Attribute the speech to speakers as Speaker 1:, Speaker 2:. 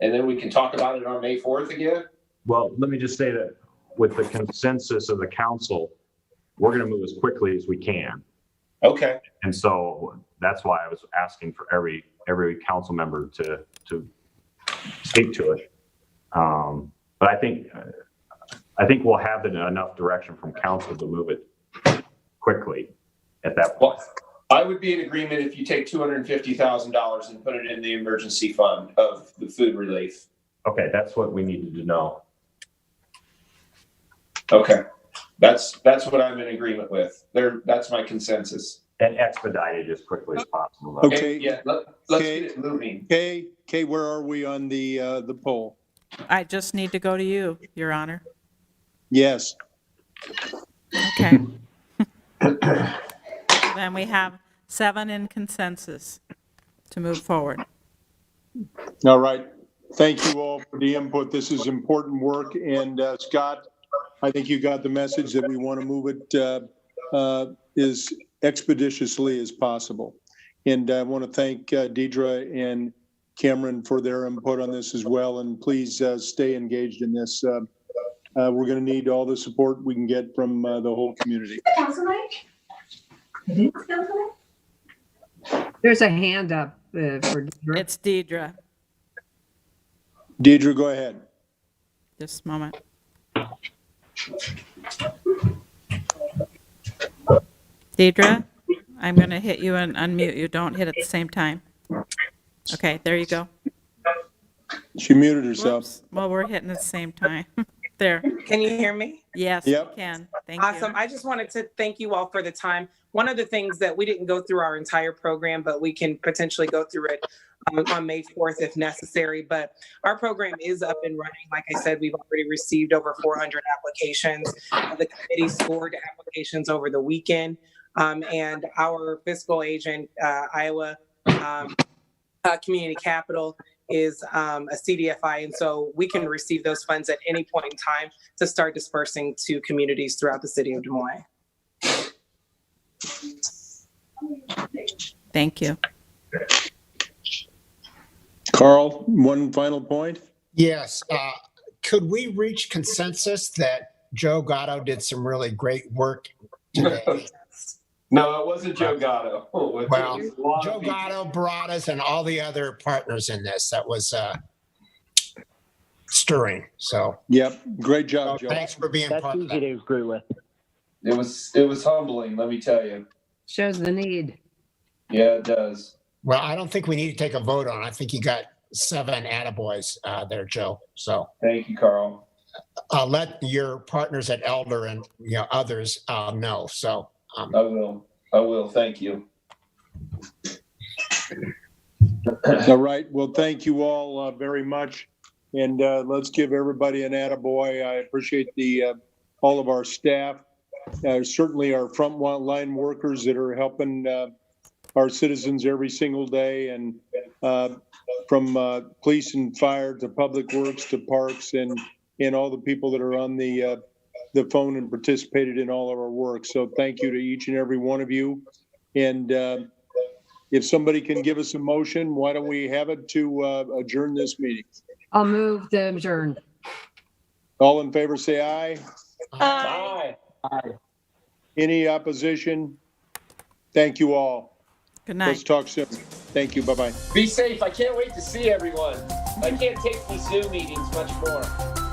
Speaker 1: and then we can talk about it on May fourth again?
Speaker 2: Well, let me just say that with the consensus of the council, we're going to move as quickly as we can.
Speaker 1: Okay,
Speaker 2: And so that's why I was asking for every, every council member to, to speak to it. Um, But I think, uh, I think we'll have enough direction from council to move it quickly at that point.
Speaker 1: well, I would be in agreement if you take two hundred and fifty thousand dollars and put it in the emergency fund of the food relief.
Speaker 2: Okay, that's what we needed to know.
Speaker 1: Okay, that's, that's what I'm in agreement with. There, that's my consensus.
Speaker 2: And expedite it as quickly as possible. though.
Speaker 1: Okay,
Speaker 3: Okay.
Speaker 1: Yeah, let, let's
Speaker 3: Okay.
Speaker 1: get it moving.
Speaker 3: Kay, Kay, where are we on the, uh, the poll?
Speaker 4: I just need to go to you, Your Honor.
Speaker 3: Yes,
Speaker 4: Okay. Then we have seven in consensus to move forward.
Speaker 3: all right. Thank you all for the input. This is important work, and uh, Scott, I think you got the message that we want to move it uh, uh, as expeditiously as possible. And I want to thank uh, Deidre and Cameron for their input on this as well, and please uh, stay engaged in this. Uh, uh, We're going to need all the support we can get from uh, the whole community.
Speaker 5: Councilman? Councilman?
Speaker 6: There's a hand up uh, for, Deidre.
Speaker 4: It's Deidre,
Speaker 3: Deidre, go ahead.
Speaker 4: just a moment. Deidre, I'm going to hit you and unmute you. Don't hit at the same time. Okay, there you go.
Speaker 3: She muted herself.
Speaker 4: Whoops. Well, we're hitting at the same time. There.
Speaker 7: Can you hear me?
Speaker 4: Yes, you
Speaker 3: Yep.
Speaker 4: can. Thank you.
Speaker 7: Awesome. I just wanted to thank you all for the time. One of the things that we didn't go through our entire program, but we can potentially go through it um, on May 4th if necessary. But our program is up and running. Like I said, we've already received over 400 applications. The committee scored applications over the weekend. Um, And our fiscal agent, uh, Iowa um, uh, Community Capital, is um, a CDFI. And so we can receive those funds at any point in time to start dispersing to communities throughout the city of Des Moines.
Speaker 4: Thank you.
Speaker 3: Carl, one final point?
Speaker 8: Yes, uh, could we reach consensus that Joe Gatto did some really great work today?
Speaker 1: No, it wasn't Joe Gatto. Oh, it was a
Speaker 8: Well,
Speaker 1: lot of
Speaker 8: Joe
Speaker 1: people.
Speaker 8: Gatto, Baradas, and all the other partners in this, that was uh, stirring, so
Speaker 3: Yep, great job, Joe.
Speaker 8: thanks for being
Speaker 9: That's
Speaker 8: part of
Speaker 9: easy
Speaker 8: that.
Speaker 9: to agree with.
Speaker 1: It was, it was humbling, let me tell you.
Speaker 6: shows the need.
Speaker 1: Yeah, it does.
Speaker 8: Well, I don't think we need to take a vote on, it. I think you got seven attaboys uh, there, Joe, so
Speaker 1: Thank you, Carl.
Speaker 8: uh, let your partners at Elder and, you know, others uh, know, so. um,
Speaker 1: I will, I will, thank you.
Speaker 3: All right, well, thank you all uh, very much. And uh, let's give everybody an attaboy. I appreciate the, uh, all of our staff, uh, certainly our frontline workers that are helping uh, our citizens every single day and uh, from uh, police and fire to public works to parks and, and all the people that are on the, uh, the phone and participated in all of our work. So thank you to each and every one of you. And uh, if somebody can give us a motion, why don't we have it to uh, adjourn this meeting?
Speaker 6: I'll move the adjourn.
Speaker 3: All in favor, say aye.
Speaker 8: uh,
Speaker 1: Bye.
Speaker 3: Any opposition? Thank you all.
Speaker 4: Good
Speaker 3: Let's
Speaker 4: night.
Speaker 3: talk soon. Thank you. Bye-bye.
Speaker 1: Be safe. I can't wait to see everyone. I can't take these Zoom meetings much more.